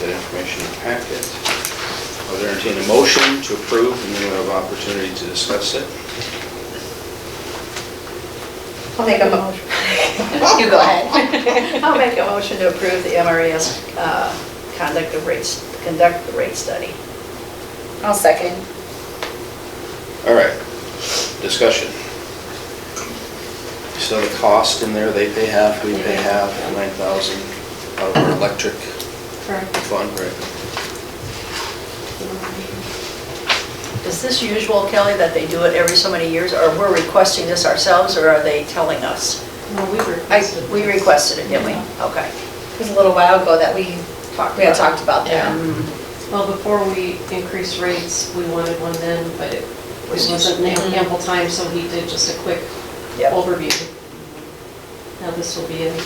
that information in the packet. I'll entertain a motion to approve, and then we'll have opportunity to discuss it. I'll make a motion. You go ahead. I'll make a motion to approve the MRES uh, conduct of rates, conduct the rate study. I'll second. All right, discussion. So the cost in there, they pay half, we pay half, 9,000 of our electric Correct. fund, right? Is this usual, Kelly, that they do it every so many years, or we're requesting this ourselves, or are they telling us? No, we I, requested. we requested it, didn't we? Okay. It was a little while ago that we talked, we had talked about that. Mm, Well, before we increased rates, we wanted one then, but it it wasn't Mm-hmm. am- ample time, so he did just a quick Yep, overview. Now this will be an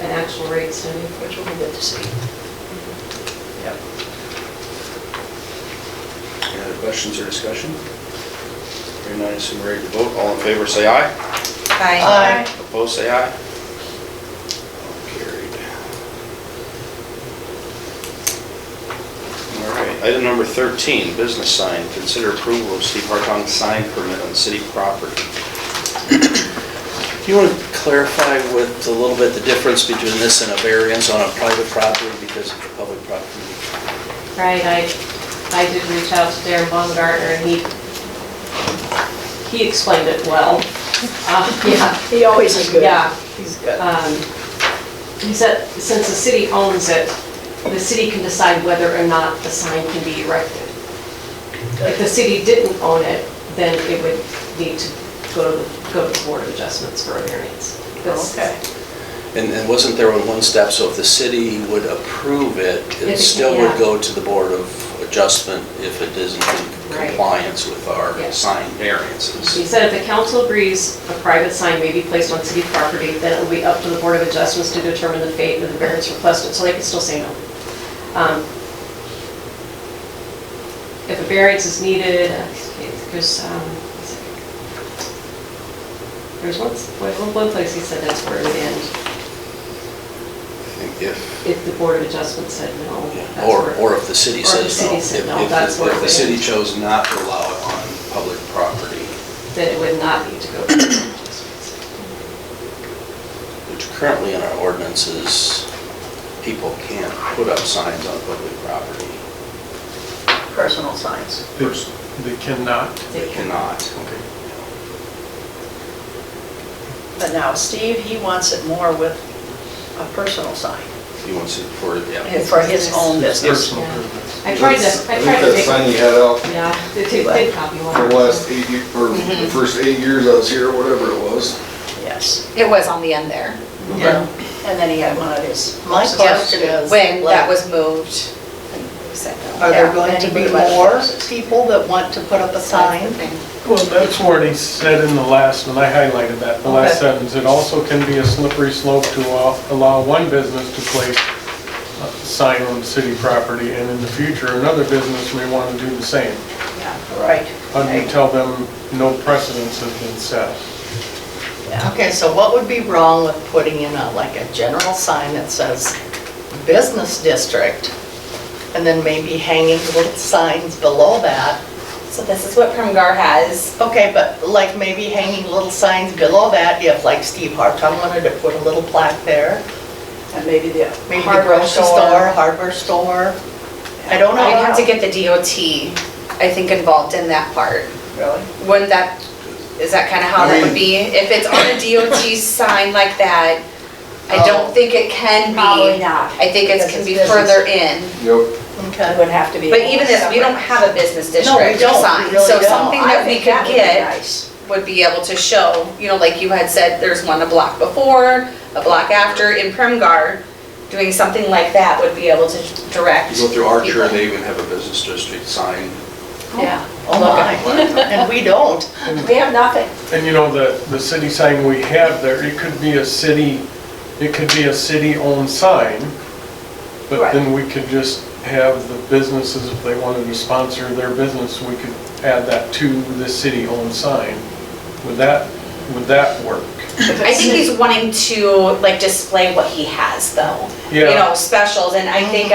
an actual rate study. which will be good to see. Yep. Any other questions or discussion? Hearing none, assume ready to vote. All in favor, say aye. Aye. Opposed, say aye. Carried. All right, item number 13, business sign. Consider approval of Steve Hartong's sign permit on city property. Do you want to clarify with a little bit the difference between this and a variance on a private property because of the public property? Right, I, I did reach out to Darren Baumgartner, and he, he explained it well. Uh, Yeah. He always is good. Yeah. He's good. um, He said, since the city owns it, the city can decide whether or not the sign can be erected. If the city didn't own it, then it would need to go to, the- go to the board of adjustments for a variance. That's- Okay. And and wasn't there one step, so if the city would approve it, If it- it still would yeah. go to the Board of Adjustment if it isn't in Right. compliance with our Yeah. sign He variances? said if the council agrees a private sign may be placed on city property, then it will be up to the board of adjustments to determine the fate of the variance requested, so they can still say no. Um, If a variance is needed, uh, there's, um, what's it? there's one, one- one place he said that's where it would end, I think if, if the board of adjustments said no. yeah, that's or, where- or if the city Or if the says city no. said If- no, if the- that's what If we- the city chose not to allow it on public property, Then it would not need to go to the board of adjustments. which currently in our ordinances, people can't put up signs on public property. Personal signs. They they cannot. They cannot. Okay. But now Steve, he wants it more with a personal sign He wants it for, yeah. for his own business. Personal yeah. privilege. I tried to, I think tried to that make. sign you had out Yeah, they did they did copy one. for the last eight, ye- or the first eight years I was here, or whatever it was. Yes. It was on the end there. Yeah. And then he had one of his. My question Yep, is, When that like- was moved. and we said no. Are there Yeah, going to be anybody left more houses. people that want to put up a That's sign? the thing. Well, that's what he said in the last, and I highlighted that, the last Okay. sentence. It also can be a slippery slope to allow- allow one business to place a sign on city property, and in the future, another business may want to do the same. Right. How do you tell them no precedence has been set? Yeah. Okay, so what would be wrong with putting in a, like a general sign that says business district? And then maybe hanging little signs below that. So this is what Premgar has. Okay, but like maybe hanging little signs below that if like Steve Hartong wanted to put a little plaque there. And maybe the Maybe the Hardware store. grocery store, hardware store. I don't know. I'd have to get the DOT, I think, involved in that part. Really? Wouldn't that, is that kind of how that would be? If it's on a DOT sign like that, I Oh. don't think it can be. Probably not, I think it because can it's be business. further in. Yep. It Okay. would have to be. But even if, we don't have a business district No, we don't. We sign, really so don't. something that we could get Nice. would be able to show, you know, like you had said, there's one a block before, a block after in Premgar. Doing something like that would be able to direct. You go through Archer, people. they even have a business district sign. Yeah. Oh my, and we don't. We have nothing. And you know, the, the city sign we have there, it could be a city, it could be a city-owned sign, but Right. then we could just have the businesses, if they wanted to sponsor their business, we could add that to the city-owned sign. Would that, would that work? I think he's wanting to like display what he has though. You Yeah. know, specials and I think